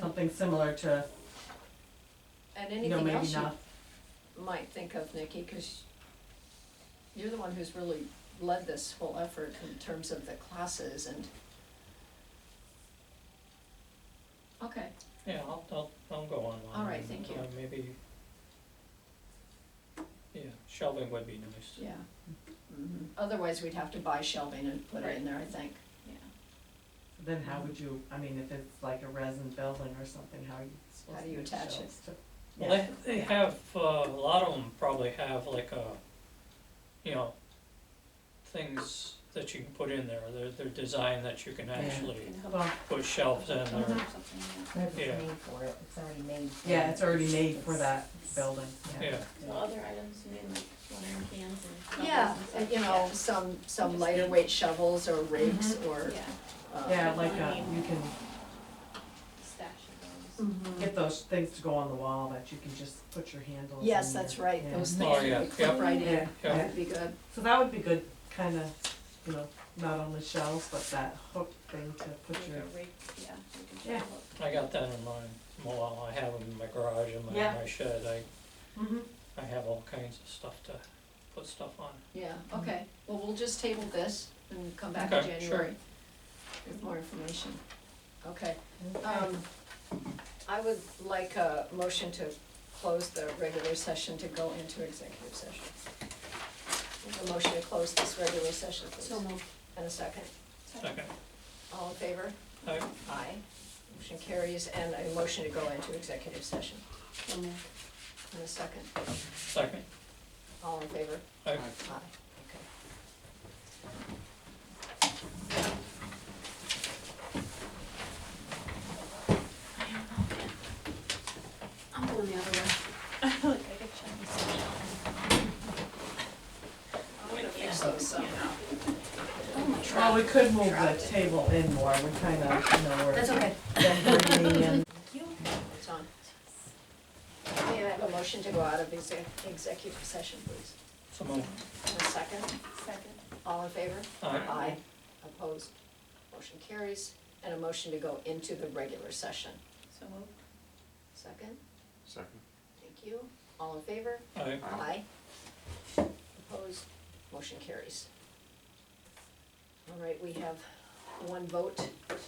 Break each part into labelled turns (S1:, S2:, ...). S1: something similar to,
S2: And
S1: you know,
S2: anything
S1: maybe
S2: else
S1: not.
S2: you might think of, Nikki, because you're the one who's really led this whole effort in terms of the classes and. Okay,
S3: Yeah, I'll, I'll, I'll go online.
S2: All right,
S3: and,
S2: thank
S3: uh,
S2: you.
S3: Maybe, yeah, shelving would be nice.
S2: yeah.
S1: Mm-hmm.
S2: Mhm. Otherwise, we'd have to buy shelving and put it in there, I think, yeah.
S1: Then how would you, I mean, if it's like a resin building or something, how are you supposed
S2: How
S1: to
S2: do you
S1: make
S2: attach it?
S1: shelves to?
S3: Well, they, they have, uh, a lot of them probably have like a, you know, things that you can put in there, they're, they're designed that you can actually
S1: Well,
S3: put shelves in or,
S2: Uh-huh.
S1: Mhm.
S4: Maybe
S3: Yeah.
S4: it's made for it, it's already made. for
S1: yeah,
S4: it.
S1: it's already made for
S4: It's-
S1: that building, yeah.
S3: yeah.
S5: Well, other items, you mean like watering cans and covers
S2: Yeah,
S5: and stuff?
S2: and, you know, some, some
S5: Just
S2: lighter
S5: need-
S2: weight shovels or rakes
S5: Yeah,
S2: or,
S5: Yeah,
S2: uh.
S1: Mm-hmm. Yeah, like, uh, you can
S2: mm-hmm.
S5: stash of those.
S2: mhm.
S1: get those things to go on the wall that you can just put your handles in.
S2: Yes, that's
S1: there,
S2: right,
S1: yeah.
S2: those
S3: Oh,
S2: things you
S3: yeah,
S2: could clip
S3: yeah.
S2: right
S1: Yeah,
S2: in,
S1: yeah.
S2: that would be good,
S1: So that would be good, kinda, you know, not only shelves, but that hook thing to put
S5: Like
S1: your,
S5: a rake, yeah, you can
S1: Yeah.
S5: shovel
S3: I got that in mind, well, I have them in my garage and my,
S1: Yeah.
S3: my shed, I,
S2: Mm-hmm.
S1: Mhm.
S3: I have all kinds of stuff to put stuff on.
S2: yeah, okay. Well, we'll just table this and come back in
S3: Okay, sure.
S2: January with more information. Okay,
S1: Okay.
S2: um, I would like a motion to close the regular session to go into executive session. A motion to close this regular session,
S5: it.
S2: please.
S5: So moved.
S2: And a second,
S3: Second,
S2: all in favor?
S3: I,
S2: Aye. Motion carries, and a motion to go into executive session.
S5: So moved.
S2: In a second,
S3: second,
S2: all in favor?
S3: I.
S2: Aye, okay.
S5: I'm going the other way. Like, I could check this out.
S2: I'm gonna fix those up.
S5: Oh, my
S1: Well,
S5: God.
S1: we could move the table in more, we kind of, you know, we're.
S2: That's okay.
S1: then bringing in-
S2: It's on. May I have a motion to go out of exec- executive session, please?
S3: So moved.
S2: In a second,
S5: Second.
S2: all in favor?
S3: Aye.
S2: Opposed? Motion carries, and a motion to go into the regular session.
S5: So moved.
S2: Second,
S6: Second.
S2: thank you. All in favor?
S3: I.
S2: Aye. Opposed, motion carries. All right, we have one vote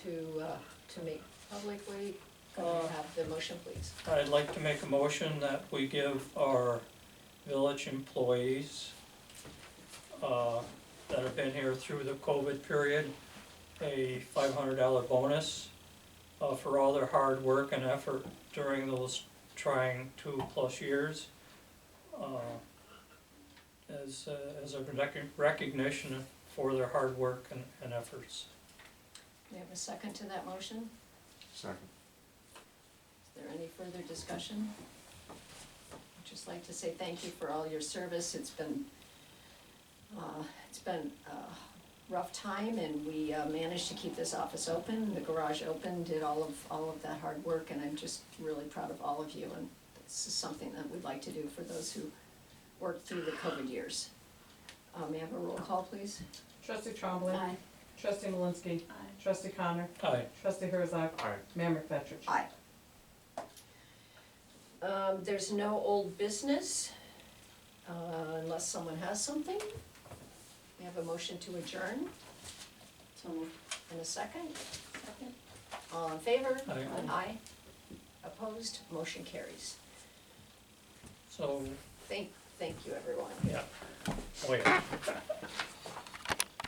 S2: to, uh, to make publicly. Go ahead and have the motion, please.
S3: I'd like to make a motion that we give our village employees uh, that have been here through the COVID period, a five hundred dollar bonus uh, for all their hard work and effort during those trying two plus years. uh, As, uh, as a recog- recognition for their hard work and, and efforts.
S2: We have a second to that motion?
S6: Second.
S2: Is there any further discussion? I'd just like to say thank you for all your service. It's been, uh, it's been a rough time and we uh, managed to keep this office open, the garage open, did all of, all of that hard work and I'm just really proud of all of you and this is something that we'd like to do for those who worked through the COVID years. Uh, May I have a roll call, please?
S1: Trustee Trombley, trustee Malinsky,
S5: Aye.
S1: trustee Connor,
S3: Aye.
S1: trustee Herzog,
S6: Aye.
S1: Mayor McFetrich.
S2: Aye. Um, there's no old business, uh, unless someone has something. We have a motion to adjourn
S5: So moved.
S2: in a second.
S5: Second.
S2: All in favor?
S3: Aye.
S2: Aye. Opposed? Motion carries.
S3: So,
S2: Thank, thank you, everyone.
S3: yeah, wait.